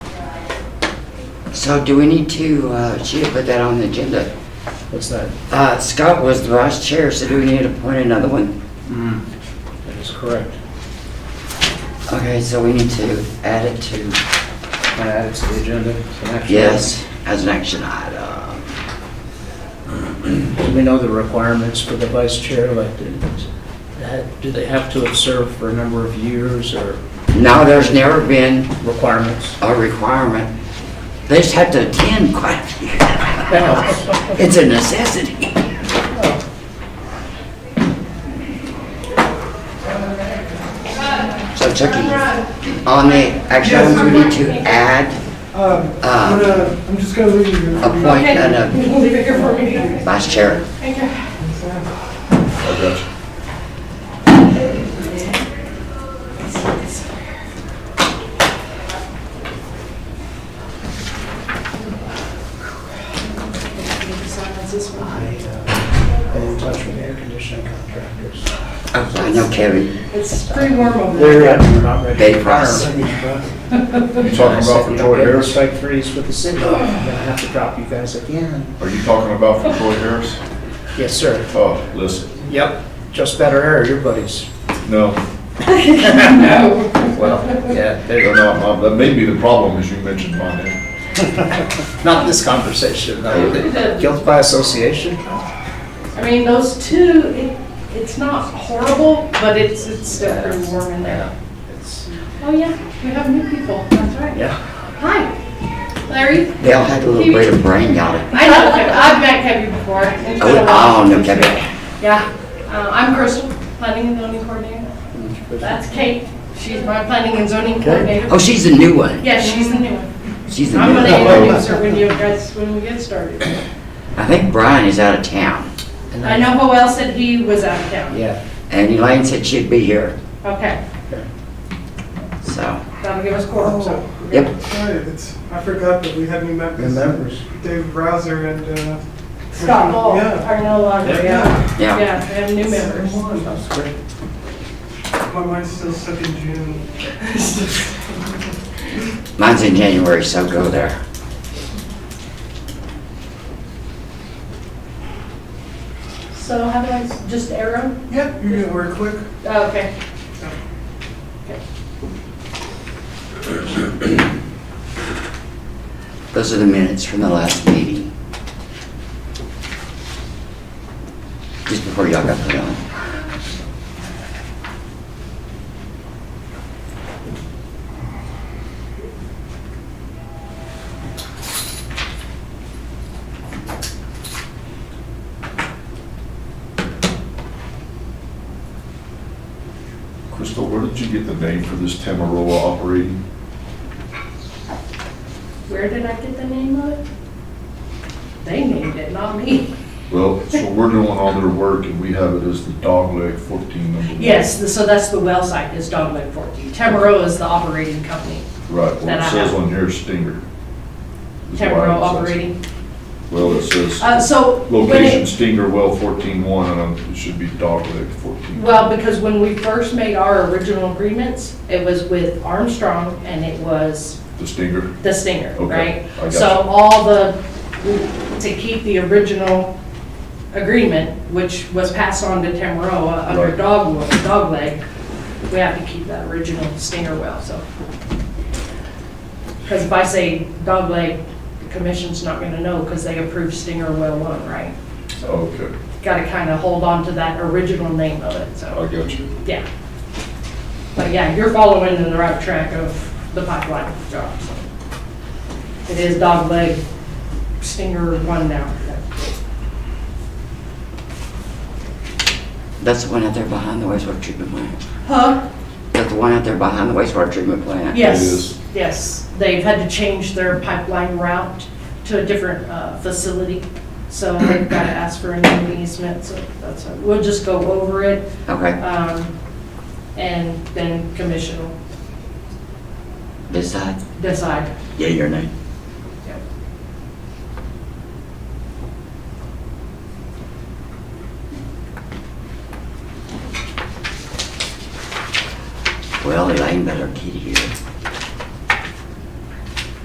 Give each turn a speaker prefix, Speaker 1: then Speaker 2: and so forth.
Speaker 1: So do we need to, uh, she had put that on the agenda.
Speaker 2: What's that?
Speaker 1: Uh, Scott was the vice chair, so do we need to appoint another one?
Speaker 2: Mm. That is correct.
Speaker 1: Okay, so we need to add it to,
Speaker 2: Can I add it to the agenda? It's an action
Speaker 1: yes, as an action item.
Speaker 2: item. Do we know the requirements for the vice chair elected? Do they have to have served for a number of years or
Speaker 1: No, there's never been
Speaker 2: requirements?
Speaker 1: a requirement. They just have to attend quite a few.
Speaker 2: Now,
Speaker 1: It's a necessity. So Chucky, on the action item, we need to add uh,
Speaker 3: Um, I'm gonna- I'm just gonna leave you.
Speaker 1: appoint an
Speaker 4: Leave it here for me.
Speaker 1: uh, vice chair.
Speaker 4: Thank you.
Speaker 2: uh, I'm in touch with air conditioning contractors.
Speaker 1: I know Kevin.
Speaker 4: It's pretty warm over there.
Speaker 2: They're uh, not ready.
Speaker 1: Bay
Speaker 2: for
Speaker 1: Price.
Speaker 2: retirement.
Speaker 5: You talking about for Troy Harris?
Speaker 2: Strike threes with the city. I'm gonna have to drop you guys again.
Speaker 5: Are you talking about for Troy Harris?
Speaker 2: Yes, sir.
Speaker 5: Oh, listen,
Speaker 2: Yep. Just better air, your buddies.
Speaker 5: no,
Speaker 2: Well, yeah, there
Speaker 5: they're not, my- that may be the problem, as you mentioned my name.
Speaker 2: Not this conversation. no. Guilt by association?
Speaker 4: I mean, those two, it, it's not horrible, but it's, it's still pretty warm in there.
Speaker 2: It's-
Speaker 4: Oh, yeah, we have new people, that's right.
Speaker 2: Yeah.
Speaker 4: Hi, Larry.
Speaker 1: They all had a little bit of brain got it.
Speaker 4: I know Kevin, I've met Kevin before. It's been a while.
Speaker 1: Oh, no Kevin.
Speaker 4: Yeah, uh, I'm Crystal, planning and zoning coordinator. That's Kate, she's my planning and zoning coordinator.
Speaker 1: Oh, she's the new one.
Speaker 4: Yeah, she's the new one.
Speaker 1: She's the
Speaker 4: I'm
Speaker 1: new
Speaker 4: gonna
Speaker 1: one.
Speaker 4: introduce her when you guys, when we get started.
Speaker 1: I think Brian is out of town.
Speaker 2: And
Speaker 4: I know who else said he was out of town.
Speaker 2: Yeah.
Speaker 1: And Elaine said she'd be here,
Speaker 4: Okay,
Speaker 1: so,
Speaker 4: that'll give us quorum, so.
Speaker 1: yep.
Speaker 3: Sorry, it's- I forgot that we had new members. Dave Browser and, uh.
Speaker 4: Scott Hall
Speaker 3: Yeah.
Speaker 4: are no longer, yeah.
Speaker 1: Yeah.
Speaker 4: Yeah, we have new members.
Speaker 2: That's great.
Speaker 3: My mind's still stuck in June.
Speaker 1: Mine's in January, so go there.
Speaker 4: So how do I, s- just arrow?
Speaker 3: Yeah, you're gonna work quick.
Speaker 4: Oh, Okay.
Speaker 1: Those are the minutes from the last meeting. Just before y'all got put on.
Speaker 5: Crystal, where did you get the name for this Tamaroa operating?
Speaker 4: Where did I get the name of it? They named it, not me.
Speaker 5: Well, so we're doing all their work and we have it as the dogleg fourteen number. one.
Speaker 4: Yes, th- so that's the well site is Dogleg 14. Tamaroa is the operating company.
Speaker 5: Right,
Speaker 4: That
Speaker 5: well,
Speaker 4: I
Speaker 5: it says
Speaker 4: have.
Speaker 5: on here Stinger. is why it
Speaker 4: Tamaroa
Speaker 5: says-
Speaker 4: operating.
Speaker 5: Well, it
Speaker 4: Uh,
Speaker 5: says
Speaker 4: So when it-
Speaker 5: location Stinger well fourteen one and um, it should be dogleg fourteen.
Speaker 4: Well, because when we first made our original agreements, it was with Armstrong and it was
Speaker 5: The Stinger,
Speaker 4: the Stinger,
Speaker 5: Okay,
Speaker 4: right?
Speaker 5: I got
Speaker 4: So
Speaker 5: you.
Speaker 4: all the, to keep the original agreement, which was passed on to Tamaroa under
Speaker 5: Right.
Speaker 4: dog, dogleg, we have to keep that original Stinger well, so. Because if I say dogleg, the commission's not gonna know because they approved Stinger well one, right?
Speaker 5: okay,
Speaker 4: Gotta kind of hold on to that original name of it,
Speaker 5: I
Speaker 4: so,
Speaker 5: got you.
Speaker 4: yeah. But yeah, you're following in the right track of the pipeline job, so. It is dog leg stinger one now.
Speaker 1: That's the one out there behind the wastewater treatment plant.
Speaker 4: Huh?
Speaker 1: That's the one out there behind the wastewater treatment plant.
Speaker 4: Yes,
Speaker 5: is.
Speaker 4: yes. They've had to change their pipeline route to a different uh, facility. So they've got to ask for an easement, so that's, we'll just go over it.
Speaker 1: Okay,
Speaker 4: um, And then commission will
Speaker 1: decide,
Speaker 4: decide.
Speaker 1: yea or nay.